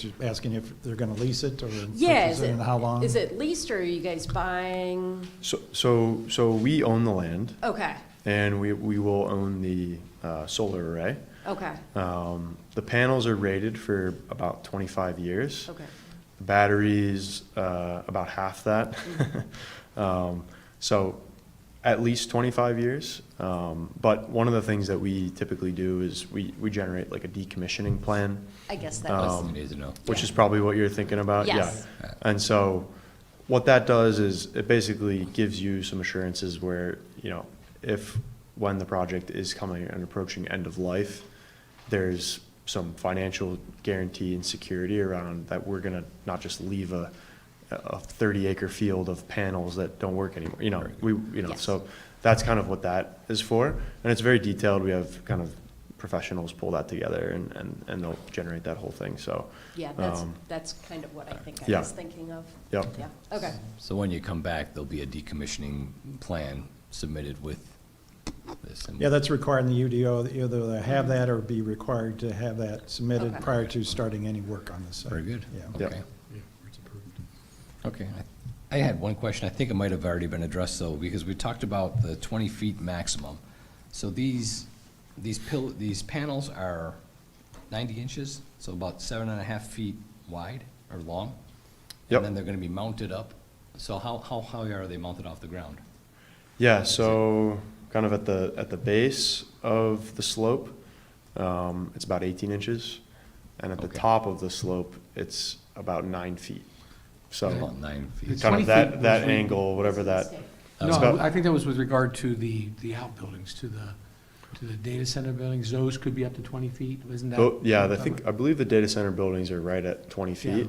Just asking if they're going to lease it or Yeah, is purchase it it, and how long? is it leased or are you guys buying? So, so, so we own the land, Okay, and we, we will own the uh, solar array. okay, Um, The panels are rated for about 25 years. okay. The Batteries, uh, about half that. Um, So at least 25 years. Um, But one of the things that we typically do is we, we generate like a decommissioning plan. I guess that Um, was, You need to know. which is probably what you're thinking about. Yes. Yeah. Right. And so what that does is it basically gives you some assurances where, you know, if, when the project is coming and approaching end of life, there's some financial guarantee and security around that we're gonna not just leave a, a thirty acre field of panels that don't work anymore, you know, we, you know, Yes. so that's kind of what that is for. And it's very detailed. We have kind of professionals pull that together and, and, and they'll generate that whole thing, so. yeah, that's, um, that's kind of what I think I yeah. was thinking of. Yep. Yeah, okay, So when you come back, there'll be a decommissioning plan submitted with this. and- Yeah, that's required in the UDO, that either they have that or be required to have that submitted Okay. prior to starting any work on the site. Very good. Yeah. Yeah. Okay. Okay. I I had one question. I think it might have already been addressed though, because we talked about the twenty feet maximum. So these, these pill, these panels are ninety inches, so about seven and a half feet wide or long? Yep. And then they're gonna be mounted up. So how, how high are they mounted off the ground? Yeah, so kind of at the, at the base of the slope, um, it's about eighteen inches. And at the Okay. top of the slope, it's about nine feet. So About nine feet. It's kind 20 of feet that, that was re- angle, whatever that, It's No, about- I think that was with regard to the, the outbuildings, to the, to the data center buildings. Those could be up to 20 feet, wasn't that? tho- oh, yeah, I think, I believe the data center buildings are right at twenty feet.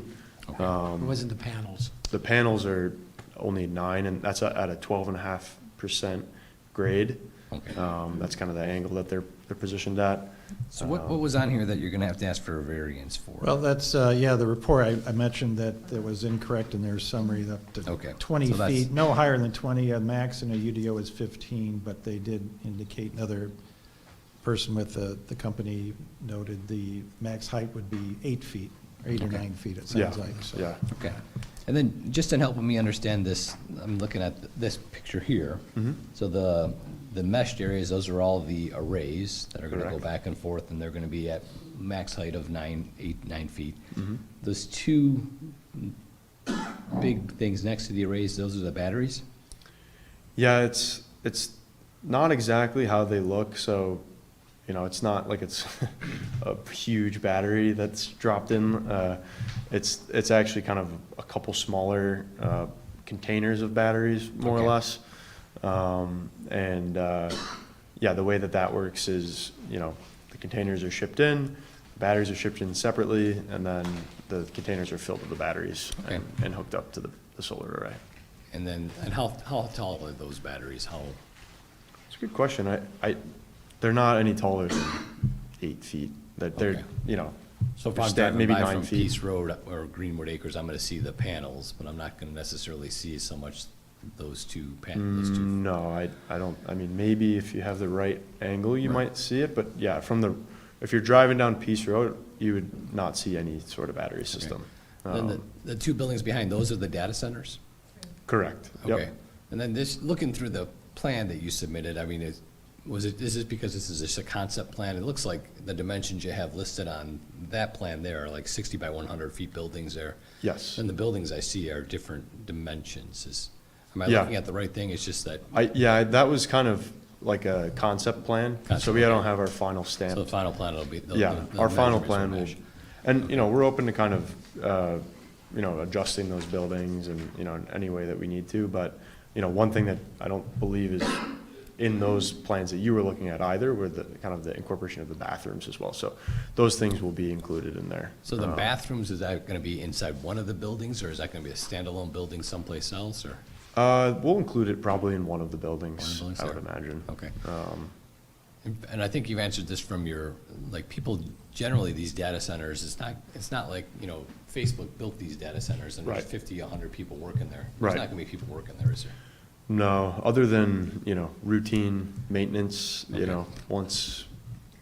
Okay. It um, wasn't the panels. The panels are only nine, and that's at a twelve and a half percent grade. Okay. Um, that's kind of the angle that they're, they're positioned at. So what, what was on here that you're gonna have to ask for a variance for? Well, that's, uh, yeah, the report, I, I mentioned that it was incorrect in their summary, up to Okay, twenty so that's- feet, no higher than twenty, a max in a UDO is fifteen, but they did indicate another person with the, the company noted the max height would be eight feet, or eight or Okay. nine feet, it Yeah, sounds like, so. yeah. Okay. And then, just in helping me understand this, I'm looking at this picture here. So the, the meshed areas, those are all the arrays that are gonna go Correct. back and forth, and they're gonna be at max height of nine, eight, nine feet. Those two big things next to the arrays, those are the batteries? Yeah, it's, it's not exactly how they look, so, you know, it's not like it's a huge battery that's dropped in. Uh, It's, it's actually kind of a couple smaller uh, containers of batteries, more or Okay. less. Um, And, uh, yeah, the way that that works is, you know, the containers are shipped in, batteries are shipped in separately, and then the containers are filled with the batteries Okay. and and hooked up to the the solar array. And then, and how, how tall are those batteries? How, It's a good question. I, I, they're not any taller than eight feet. That they're, Okay. you know, so if I'm sta- driving maybe by nine from feet. Peace Road or Greenwood Acres, I'm gonna see the panels, but I'm not gonna necessarily see so much those two pan, those two no, I, I don't, I mean, maybe if you have the right angle, you Right. might see it, but yeah, from the, if you're driving down Peace Road, you would not see any sort of battery system. Then the, Um, the two buildings behind, those are the data centers? Correct. Yep. Okay. And then this, looking through the plan that you submitted, I mean, is, was it, is this because this is just a concept plan? It looks like the dimensions you have listed on that plan there are like sixty by one hundred feet buildings there. Yes. And the buildings I see are different dimensions. Is, am I Yeah. looking at the right thing? It's just that, I, yeah, that was kind of like a concept plan, so Concept, we don't have our final stamp. so the final plan will be. the- Yeah, the- the our final measurements plan will, match. and, you know, we're open to kind of, uh, you know, adjusting those buildings and, you know, in any way that we need to, but, you know, one thing that I don't believe is in those plans that you were looking at either were the, kind of the incorporation of the bathrooms as well, so those things will be included in there. So the Uh, bathrooms, is that gonna be inside one of the buildings, or is that gonna be a standalone building someplace else, or? Uh, we'll include it probably in one of the One of the buildings, buildings I would there. imagine. Okay. Um, And- And I think you've answered this from your, like, people, generally, these data centers, it's not, it's not like, you know, Facebook built these data centers and there's Right. fifty, hundred people working there. Right. There's not gonna be people working there, is there? No, other than, you know, routine maintenance, you Okay. know, once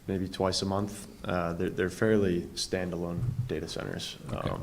maybe twice a month. Uh, They're they're fairly standalone data centers. Okay. Um,